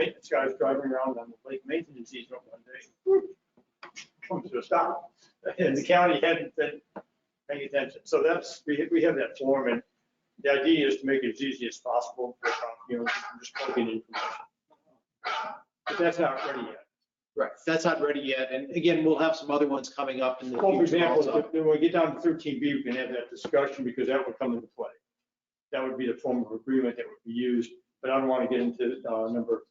This guy's driving around on the lake maintenance easement one day. Comes to a stop, and the county hadn't been paying attention. So that's, we, we have that form, and the idea is to make it as easy as possible, for, you know, just plugging in information. But that's not ready yet. Right, that's not ready yet, and again, we'll have some other ones coming up in the Well, for future example, also. if- when we get down to thirteen B, we can have that discussion because that would come into play. That would be the form of agreement that would be used, but I don't want to get into uh, number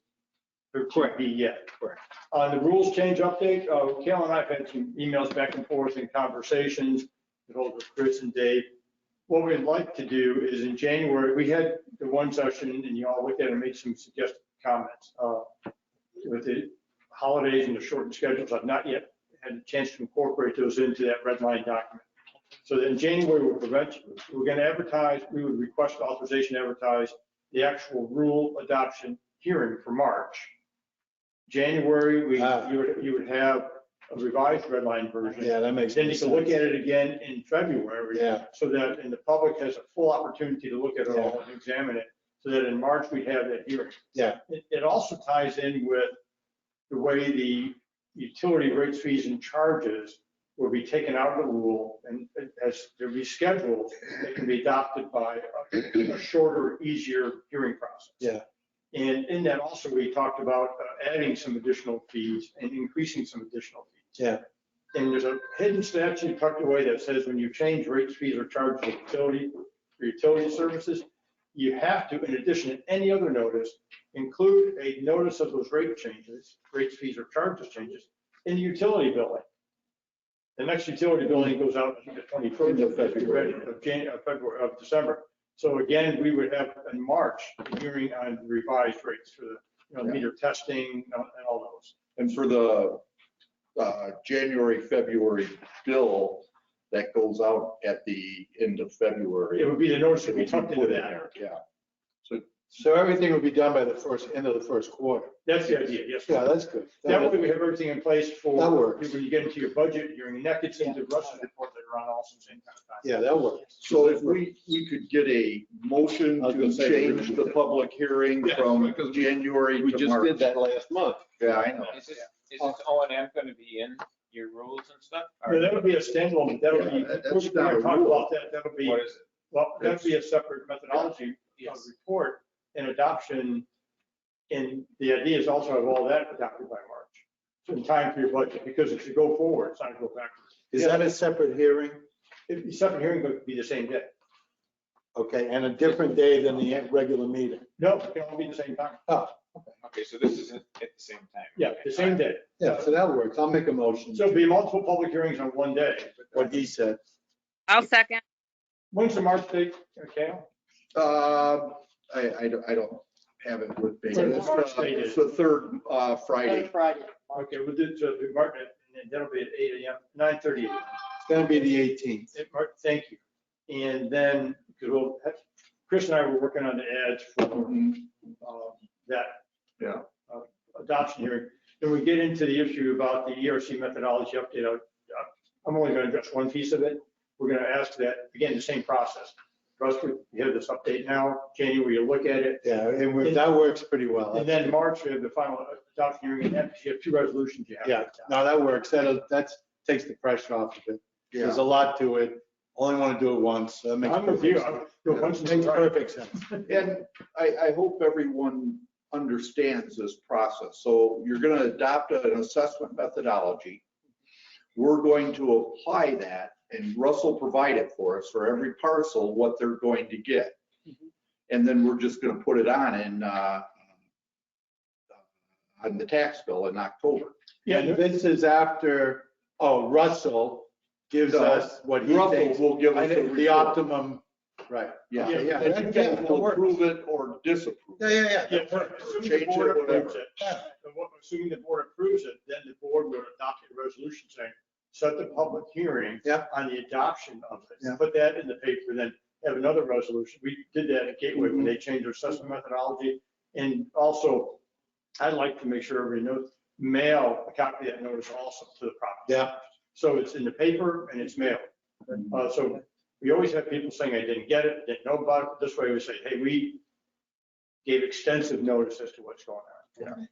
thirteen B yet. Correct. On Uh, the rules change update, uh, Cal and I have had some emails back and forth and conversations with all of Chris and Dave. What we'd like to do is in January, we had the one session and you all looked at it and made some suggested comments. Uh, With the holidays and the shortened schedules, I've not yet had a chance to incorporate those into that red line document. So that in January, we'll prevent, we're going to advertise, we would request authorization to advertise the actual rule adoption hearing for March. January, we, you would, you would have a revised red line version. Yeah, that makes. Then you can look at it again in February. Yeah. So that, and the public has a full opportunity to look at it all and examine it, so that in March, we have that hearing. Yeah. It, it also ties in with the way the utility rates, fees, and charges will be taken out of the rule, and as they're rescheduled, they can be adopted by a a shorter, easier hearing process. Yeah. And in that also, we talked about uh, adding some additional fees and increasing some additional fees. And there's a hidden statute tucked away that says when you change rates, fees, or charges of utility, for utility services, you have to, in addition to any other notice, include a notice of those rate changes, rates, fees, or charges changes in the utility billing. The next utility billing goes out on the twenty-first of February, of Jan, of February, of December. So again, we would have in March, a hearing on revised rates for the, you know, meter testing uh, and all those. And for the uh, January, February bill that goes out at the end of February. It would be the notice that it'll we be tucked into put in that. there, Yeah. So everything will be done by the first, end of the first quarter. That's the idea, yes. Yeah, that's good. That way we have everything in place for. That works. When you get into your budget, your neck gets into Russ's report that are on also same kind of time. Yeah, that works. So if we, we could get a motion I was to gonna say- change the public hearing Yes, from because we- January We to just March. did that last month. Yeah, I know. Is this, is this O and M gonna be in your rules and stuff? Or No, that would be a standalone, that'll be, Yeah, that- that's we're gonna not a talk rule. about that, that'll be, What is it? well, that'd be a separate methodology of Yes. report and adoption. And the idea is also have all that adopted by March, so in time for your budget, because if you go forward, it's not gonna go backwards. Is that a separate hearing? If the separate hearing would be the same day. Okay, and a different day than the regular meeting? No, it can all be the same time. Okay, so this is at at the same time. Yeah, the same day. Yeah, so that works. I'll make a motion, So it'd be multiple public hearings on one day. what he said. I'll second. When's the March date, okay? Uh, I, I don't- I don't have it with me. It's in It's March, the- they did. It's the third uh, Friday. Okay, we'll do, so the Martin, and that'll be at eight AM, nine thirty. It's gonna be the eighteenth. Martin, thank you. And then, because we'll, have- Chris and I were working on the ads for um, that. Yeah. uh, Adoption hearing. Then we get into the issue about the ERC methodology update. I- I'm only going to address one piece of it. We're going to ask that, again, the same process. Russ, we we have this update now, January, you look at it, Yeah, and we- that works pretty well. And then March, we have the final adoption hearing, and that, you have two resolutions you have. to Yeah, adopt. no, that works. That, that's, takes the pressure off of it. Yeah. There's a lot to it. Only want to do it once. so That makes I'm with you. perfect I'm- sense. you're punching Makes right. perfect sense. And I, I hope everyone understands this process. So you're going to adopt an assessment methodology. We're going to apply that and Russell provided for us for every parcel, what they're going to get. And then we're just going to put it on in, uh, on the tax bill in October. Yeah, And this is after, oh, Russell gives No, us what he Russell thinks, will give us a the report. optimum, right. Yeah. Yeah, yeah, And you yeah, guys that will works. approve it or disapprove. Yeah, yeah, yeah, assuming the Change it, board approves whatever. it, and what- assuming the board approves it, then the board will adopt a resolution saying, set the public hearing Yeah. on the adoption of Yeah. this. Put that in the paper, then have another resolution. We did that at Gateway when they changed their assessment methodology. And also, I'd like to make sure everybody knows, mail a copy of that notice also to the property. Yeah. So it's in the paper and it's mailed. Uh, so we always have people saying, I didn't get it, didn't know about it. This way we say, hey, we gave extensive notice as to what's going on.